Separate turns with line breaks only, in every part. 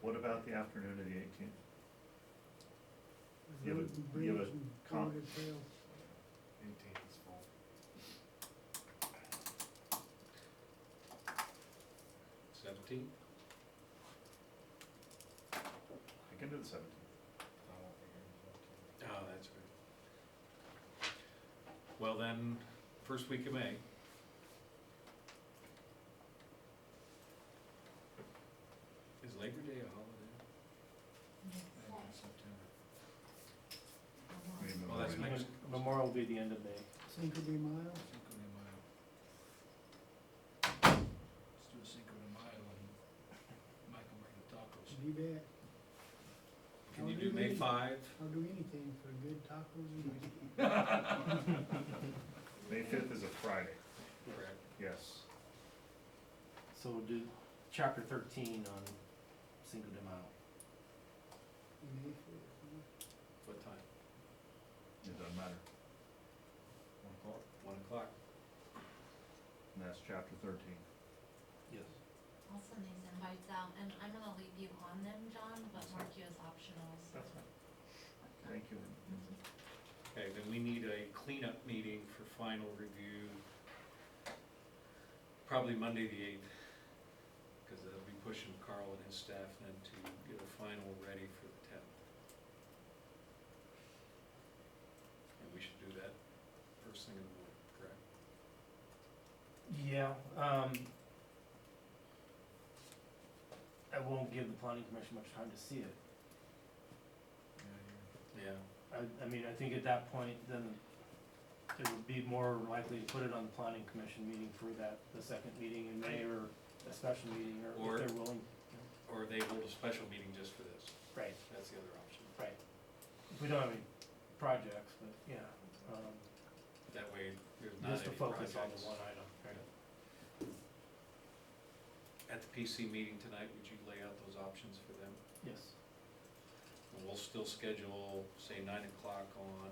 What about the afternoon of the eighteenth?
with
You have a-
Route and
you have
Bridge
a
and
con-
Colorado Trail.
Eighteenth is full. Seventeenth?
I can do the seventeenth.
I won't be here the seventeenth. Oh, that's good. Well then, first week of May. Is Labor Day a holiday? Well, that's next.
Memorial will be the end of May.
Cinco de Mayo,
Cinco de Mayo. Let's do Cinco de Mayo and Michael bring the tacos.
should be back.
Can you do May five?
I'll do anything for good tacos and
May fifth is a Friday,
Correct.
yes.
So we'll do chapter thirteen on Cinco de Mayo.
May fifth.
What time?
It doesn't matter. One o'clock?
One o'clock.
And that's chapter thirteen.
Yes.
I'll send these invites out, and I'm gonna leave you on them, John, but mark you as optional, so.
Thank you.
Okay, then we need a cleanup meeting for final review. Probably Monday the eighth, because they'll be pushing Carl and his staff then to get a final ready for the tenth. And we should do that first thing in the morning, correct?
Yeah, um. I won't give the planning commission much time to see it.
Yeah.
I, I mean, I think at that point, then it would be more likely to put it on the planning commission meeting for that, the second meeting in May or a special meeting or
Or-
if they're willing.
Or they hold a special meeting just for this,
Right,
that's the other option.
right. If we don't have any projects, but yeah, um,
That way, there's not
just to
any
focus on
projects.
the one item.
Right. At the PC meeting tonight, would you lay out those options for them?
Yes,
And We'll still schedule, say, nine o'clock on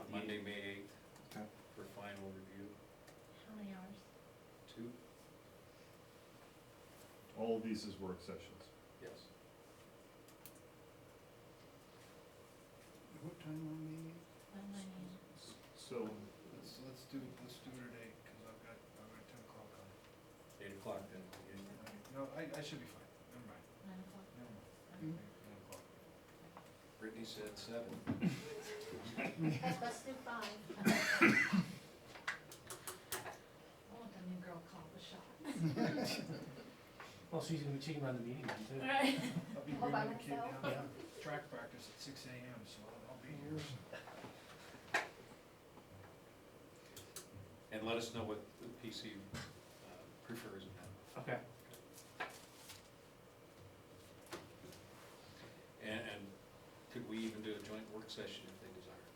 on the
Monday, May eighth.
Okay.
For final review,
How many hours?
two,
All of these is work sessions.
yes.
What time on May eighth?
When do I need?
So,
Let's, let's do, let's do it at eight, cause I've got, I've got ten o'clock on.
Eight o'clock then. yeah.
No, I, I should be fine, never mind,
Nine o'clock? Mm-hmm.
never mind,
Mm.
nine o'clock.
Brittany said seven.
Let's do five. I want the new girl called the shot.
Well, she's gonna be checking around the meeting then too.
Right.
I'll be
All by
bringing the kid
myself?
down to track practice at six AM, so I'll, I'll be here.
And let us know what the PC uh, prefers in that.
Okay,
And, and could we even do a joint work session if they desire?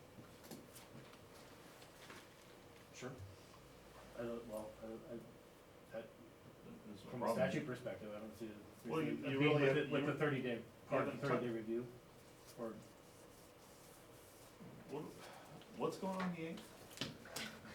sure. I don't, well, I, I,
there's a
from a
problem.
statute perspective, I don't see it.
Well, you-
I
you
think
really
with
have-
it- With
you-
the thirty day, part of
haven't
the
tou-
thirty day review, or,
What, what's going on the eighth?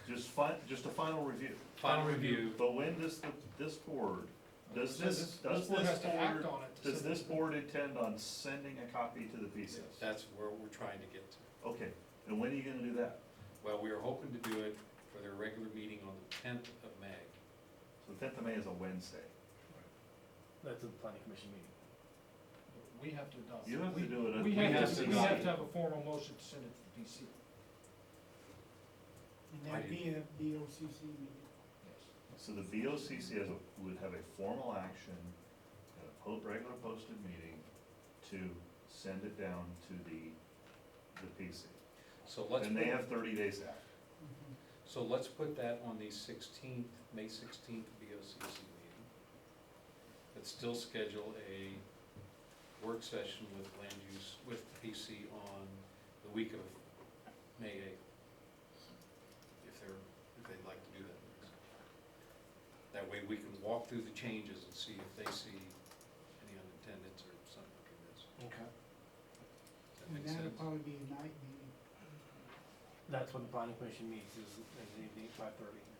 Just fi, just a final review.
Final review,
But when does the, this board, does
So
this, does
board
this
has to act
board,
on it to
does
send
this
it-
board intend on sending a copy to the PC?
that's where we're trying to get to.
Okay, and when are you gonna do that?
Well, we are hoping to do it for their regular meeting on the tenth of May.
So the tenth of May is a Wednesday.
that's a planning commission meeting.
We have to adopt.
You have to
we-
do it.
We
have
have
to
to, we
adopt
have
it.
to have a formal motion to send it to the DC.
And
I
that'd be a BOCC meeting.
Yes.
So the VOCC has, a- would have a formal action at a po- regular posted meeting to send it down to the, the PC.
So let's,
And they
put-
have thirty days after.
Mhm.
so let's put that on the sixteenth, May sixteenth BOCC meeting. Let's still schedule a work session with land use, with PC on the week of May eighth. If they're, if they'd like to do that. That way we can walk through the changes and see if they see any unintended or something like this.
Okay.
Does that
And
make
that'll
sense?
probably be a night meeting.
That's when the planning commission meets, is, is the five thirty.